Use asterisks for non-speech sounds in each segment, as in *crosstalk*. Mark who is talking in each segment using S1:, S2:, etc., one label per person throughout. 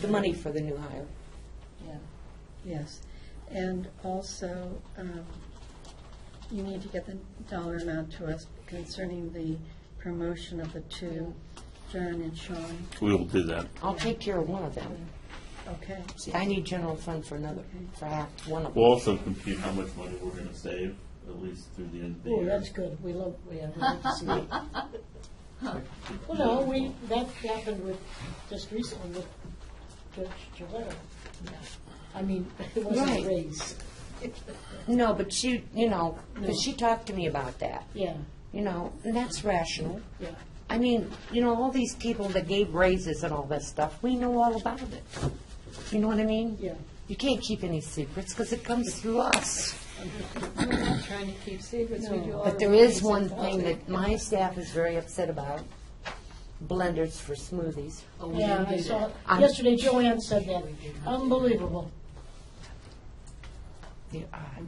S1: the money for the new hire.
S2: Yeah.
S3: Yes, and also, um, you need to get the dollar amount to us concerning the promotion of the two, John and Sean,
S4: We'll do that.
S1: I'll take care of one of them.
S3: okay?
S1: See, I need general fund for another, for half, one of them.
S4: We'll also compute how much money we're going to save, at least through the end of the
S5: Oh,
S4: year.
S5: that's good, we love, we have, we love
S2: *laughs*
S5: to see it. Well, no, we, that happened with, just recently with Judge Gilberto. I mean, *laughs*
S1: Right.
S5: it wasn't a raise,
S1: No, but she, you know, 'cause she talked to me about that,
S5: yeah,
S1: you know, and that's rational.
S5: yeah,
S1: I mean, you know, all these people that gave raises and all this stuff, we know all about it. You know what I mean?
S5: yeah.
S1: You can't keep any secrets because it comes through us.
S2: Trying to keep secrets, we do all.
S1: But there is one thing that my staff is very upset about, blenders for smoothies.
S5: Oh, Yeah, I saw,
S1: I'm-
S5: yesterday Joanne said that, unbelievable.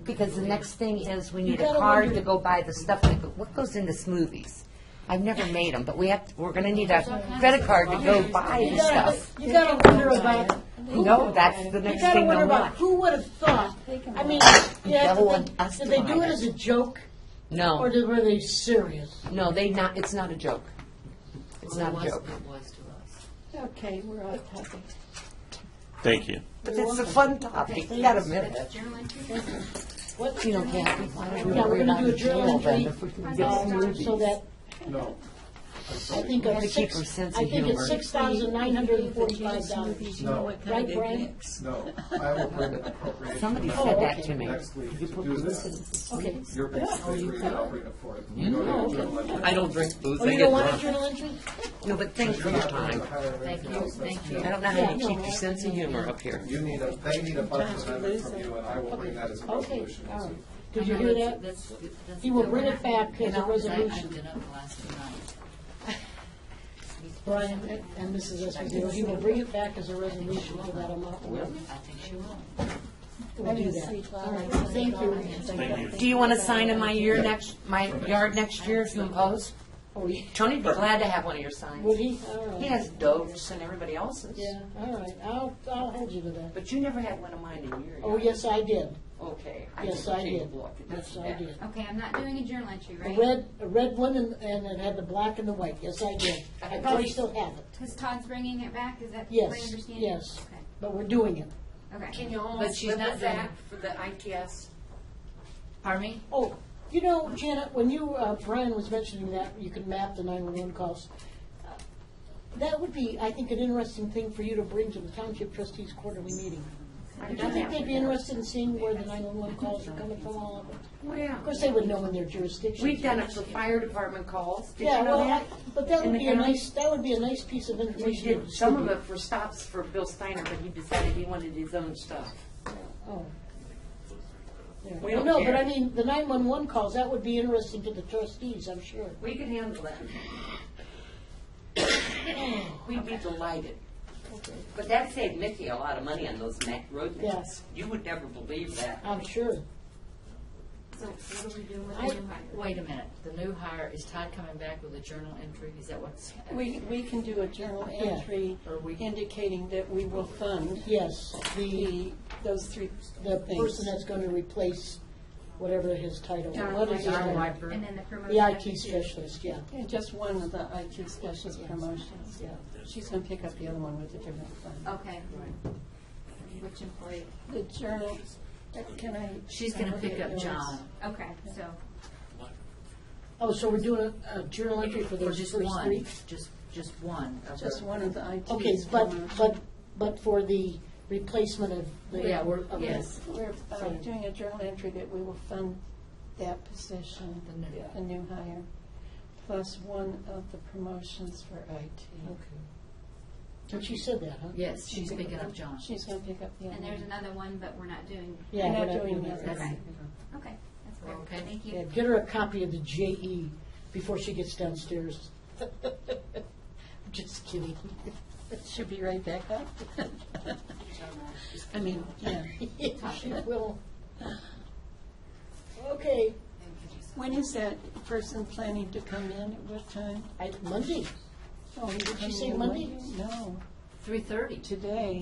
S1: Because the next thing is, we need a
S5: gotta
S1: card
S5: wonder-
S1: to go buy the stuff that, go- what goes into smoothies? I've never made them, but we have, to- we're gonna need a credit card to go buy
S5: You
S1: the
S5: gotta-
S1: stuff.
S5: You gotta wonder about, who-
S1: No, that's the
S5: you
S1: next
S5: gotta
S1: thing
S5: wonder
S1: they'll
S5: about,
S1: want.
S5: who would have thought, I mean, yeah,
S1: They'll want us
S5: did
S1: to
S5: they do
S1: buy
S5: it
S1: it.
S5: as a joke, or
S1: No,
S5: did- were they serious?
S1: no, they not, it's not a joke. It's not a joke.
S2: It was to us.
S3: Okay, we're off topic.
S4: Thank you.
S1: But it's a fun topic, you gotta admit it.
S2: Journal entry?
S5: What,
S1: You
S5: yeah,
S1: know, Kathy, why don't we
S5: we're
S1: worry
S5: gonna
S1: about
S5: do a
S1: the
S5: journal
S1: journal then
S5: entry,
S1: if we can get
S5: uh, so
S1: smoothies?
S5: that,
S6: No.
S5: I think of
S1: gotta keep
S5: six,
S1: our sense
S5: I
S1: of
S5: think it's
S1: humor.
S5: six thousand nine hundred and forty-five dollars.
S6: No.
S5: Right, Brian?
S6: No, I will bring an appropriation.
S1: Somebody
S6: amount
S1: said that
S5: Oh, okay.
S1: to me.
S6: Next week to do this.
S5: Okay.
S6: Your books, they read it, I'll bring it forth. You go to
S5: Oh,
S6: the journal entry.
S1: I don't drink booze,
S5: Oh, you don't want a journal entry?
S1: No, but thanks for your time.
S6: Thank you, thank
S1: I don't know how you keep your sense of humor up here.
S6: You need a, they need a budget amendment from you, and I will bring that as a
S5: Okay,
S6: resolution.
S5: all right. Did you hear that?
S2: That's, that's.
S5: He will bring it back as a
S2: I- I've
S5: resolution,
S2: been up the last few nights.
S5: *laughs* Brian, and Mrs. Esposito, he will bring it back as a resolution for that amount. We'll
S2: I think she will.
S5: do that. All right, thank you.
S4: Thank you.
S1: Do you want to sign in my year next, my yard next year if you impose?
S5: Oh, yeah.
S1: Tony'd be glad to have one of your signs.
S5: Would he? All right.
S1: He has Dove's and everybody else's.
S5: Yeah, all right, I'll, I'll hold you to that.
S1: But you never had one of mine in your
S5: Oh,
S1: yard.
S5: yes, I did.
S1: Okay.
S5: Yes,
S1: took a
S5: I
S1: cheap
S5: did.
S1: look. It
S5: Yes,
S1: doesn't
S5: I
S1: matter.
S5: did.
S7: Okay, I'm not doing a journal entry,
S5: A
S7: right?
S5: red, a red one and, and it had the black and the white. Yes, I did. I probably still have it,
S7: Because Todd's bringing it back, is that my
S5: Yes,
S7: understanding?
S5: yes. but we're doing it.
S7: Okay, okay.
S1: Can you
S2: But
S1: almost
S2: she's
S1: flip
S2: not
S1: it
S2: doing
S1: back for the ITS?
S2: Pardon me?
S5: Oh, you know, Janet, when you, uh, Brian was mentioning that you can map the 911 calls, uh, that would be, I think, an interesting thing for you to bring to the township trustees quarterly meeting. Do you think they'd be interested in seeing where the 911 calls are coming from all over? Of course, they would know in their jurisdiction.
S1: We've done it for fire department calls. Did
S5: Yeah,
S1: you know
S5: well,
S1: that?
S5: I- but that
S1: In
S5: would
S1: the
S5: be a
S1: county?
S5: nice, that would be a nice piece of information.
S1: We
S5: to
S1: did some of
S5: distribute.
S1: it for stops for Bill Steiner, but he decided he wanted his own stuff.
S5: Oh. Yeah.
S1: We don't
S5: No, but
S1: care.
S5: I mean, the 911 calls, that would be interesting to the trustees, I'm sure.
S1: We could handle that. We'd be delighted. But that saved Mickey a lot of money on those ma- road maps.
S5: Yes.
S1: You would never believe that.
S5: I'm sure.
S7: So what are we doing with the
S2: I-
S7: new hire?
S2: Wait a minute, the new hire, is Todd coming back with a journal entry? Is that what's?
S8: We, we can do a journal
S5: Yeah.
S8: entry
S2: Or we-
S8: indicating that we will fund
S5: Yes, the,
S8: the, those three
S5: the
S8: things.
S5: person that's going to replace whatever his title.
S8: John
S5: what is his
S8: Wiper.
S5: title?
S7: And then the promotion.
S5: The
S7: of two.
S5: IT specialist, yeah.
S8: And just one of the IT specialist promotions, yeah. She's going to pick up the other one with a different fund.
S7: Okay. Which employee?
S8: The journal, can I?
S2: She's gonna pick up John.
S7: Okay, so,
S5: Oh, so we're doing a a journal entry for
S2: Or
S5: those
S2: just
S5: first
S2: one,
S5: three?
S2: just, just one. of
S8: Just
S2: the-
S8: one of the IT.
S5: Okay, but,
S8: promotions.
S5: but, but for the replacement of the.
S2: Yeah, we're-
S5: of the-
S2: yes.
S8: We're uh, doing a journal entry that we will fund that position,
S2: The new-
S8: the new hire, plus one of the promotions for IT.
S5: And she said that, huh?
S2: Yes, she's picking up John.
S8: She's going to pick up the other
S7: and there's
S8: one.
S7: another one, but we're not doing,
S5: Yeah,
S8: We're not
S5: but I-
S8: doing that.
S2: That's-
S7: okay. Okay, that's clear.
S2: Okay.
S7: Thank
S5: Yeah,
S7: you.
S5: get her a copy of the JE before she gets downstairs. *laughs* Just kidding. *laughs*
S8: She'll be right back up. I mean, yeah.
S5: She will. Okay,
S8: When is that person planning to come in? At what time?
S5: I, Monday.
S8: Oh,
S5: Did she say Monday?
S8: No,
S2: Three thirty.
S8: today.